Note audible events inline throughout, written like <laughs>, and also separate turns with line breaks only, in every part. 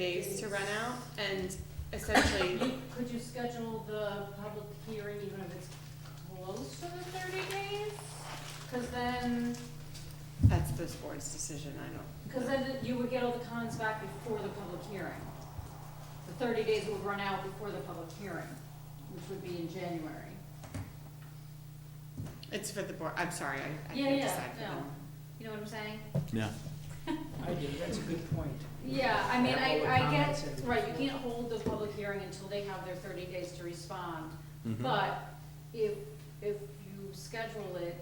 days to run out, and essentially,
Could you schedule the public hearing even if it's close to the thirty days? Cause then,
that's this board's decision, I
cause then you would get all the cons back before the public hearing. The thirty days would run out before the public hearing, which would be in January.
don't, it's for the board, I'm sorry, I, I
Yeah,
can't
yeah,
decide for them.
You know what I'm saying?
Yeah.
I do, that's a good point.
Yeah, I mean, I, I get,
Comments and-
right, you can't hold the public hearing until they have their thirty days to respond.
Mm-hmm.
But if, if you schedule it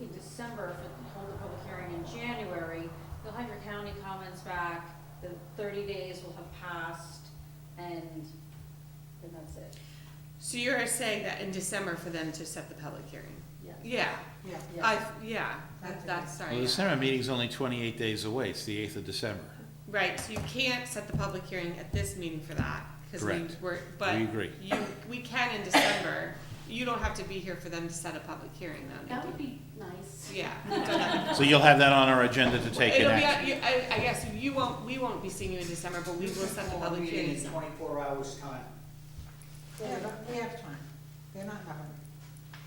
in December for, hold the public hearing in January, you'll have your county comments back, the thirty days will have passed, and, and that's it.
So you're saying that in December for them to set the public hearing?
Yeah.
Yeah, I,
Yeah,
yeah,
That's
that's,
okay.
Well, the
sorry, yeah.
December meeting's only twenty-eight days away, it's the eighth of December.
Right, so you can't set the public hearing at this meeting for that, because we
Correct.
were, but
We agree.
you, we can in December, you don't have to be here for them to set a public hearing though,
that
Nikki.
would be nice.
Yeah. <laughs> don't have-
So you'll have that on our agenda to take an
It'll be,
action.
on- you- I, I guess you won't, we won't be seeing you in December, but we will set the public hearing. in
in
December.
Twenty-four hours time.
Yeah, but we have time. They're not having it.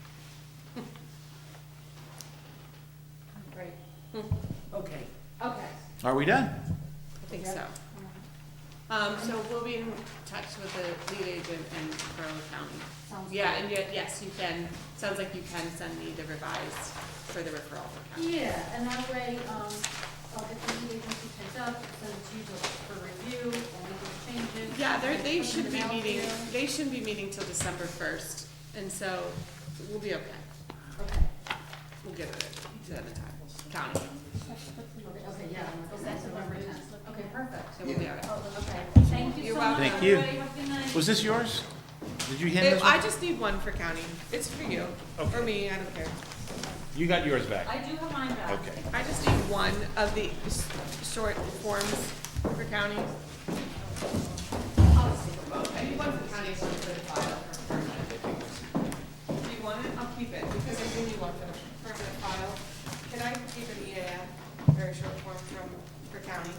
Right,
Okay,
okay.
Are we done?
I think so. Um, so we'll be in touch with the lead agent and Borough County.
Sounds good.
Yeah, and yet, yes, you can, sounds like you can send me the revised for the referral for county.
Yeah, and that way, um, I'll get the lead agency typed up, send it to you for review, and we can change it.
Yeah, they're, they
Put it in
should
the
be
mail to
meeting,
you.
they shouldn't be meeting till December first, and so we'll be okay.
Okay.
We'll get it to the time, county,
Okay, okay, yeah, is that November tenth? Okay, perfect.
so we'll be all right.
Oh, okay, thank you
You're
so much.
welcome.
Thank you.
Everybody have a good night.
Was this yours? Did you hand
Babe,
this
I
one?
just need one for county. It's for you, or me, I don't care.
You got yours back.
I do have mine back.
Okay.
I just need one of the s- short forms for county. I'll just take them both. I need one for county, one for the file for permanent. Do you want it? I'll keep it, because I do need one for the permanent file. Can I keep an EAF, very short form from, for county?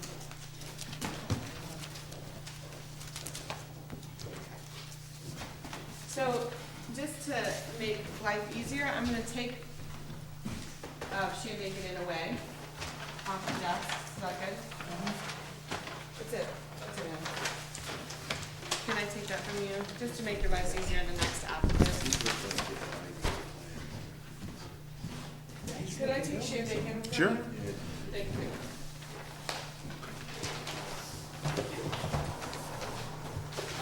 So, just to make life easier, I'm gonna take uh, of shoe making it away off the desk. Is that good? Mm-hmm. That's it. That's it. Ann. Can I take that from you, just to make your lives easier in the next applicant? Could I take shoe making?
Sure.
Thank you.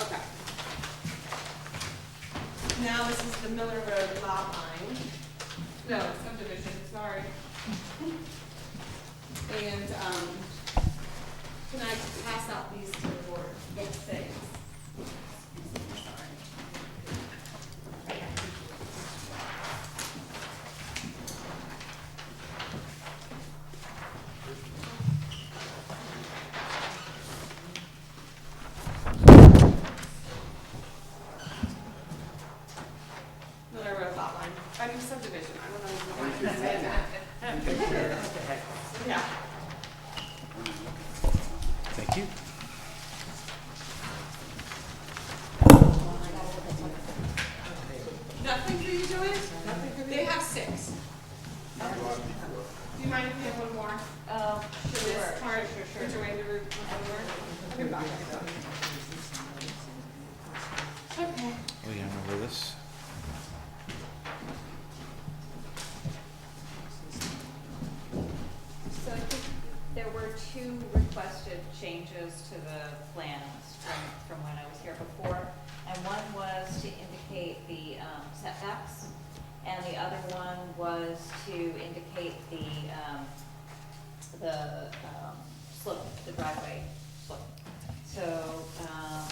Okay. Now this is the Miller Road lot line. No, subdivision, sorry. And, um, can I pass out these to the board? Yes. Thanks. Miller Road lot line, I mean subdivision, I don't know if you want to say that. <laughs> Yeah.
Thank you.
Nothing for you, Joanne? Nothing for me? They have six. Do you mind if we have one more?
Uh,
Um, For this part, for Joanne to re- over? Okay, bye. Okay.
Oh, yeah, I remember this.
So I think there were two requested changes to the plans from, from when I was here before. And one was to indicate the um, setbacks, and the other one was to indicate the, um, the um, slope, the driveway slope. So, um,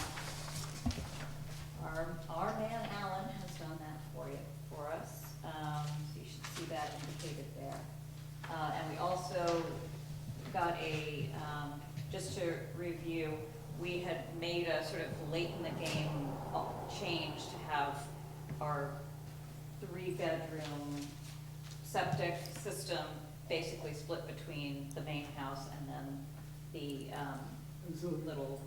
our, our man Alan has done that for you, for us, um, so you should see that indicated there. Uh, and we also got a, um, just to review, we had made a sort of late in the game uh, change to have our three-bedroom septic system basically split between the main house and then the, um, little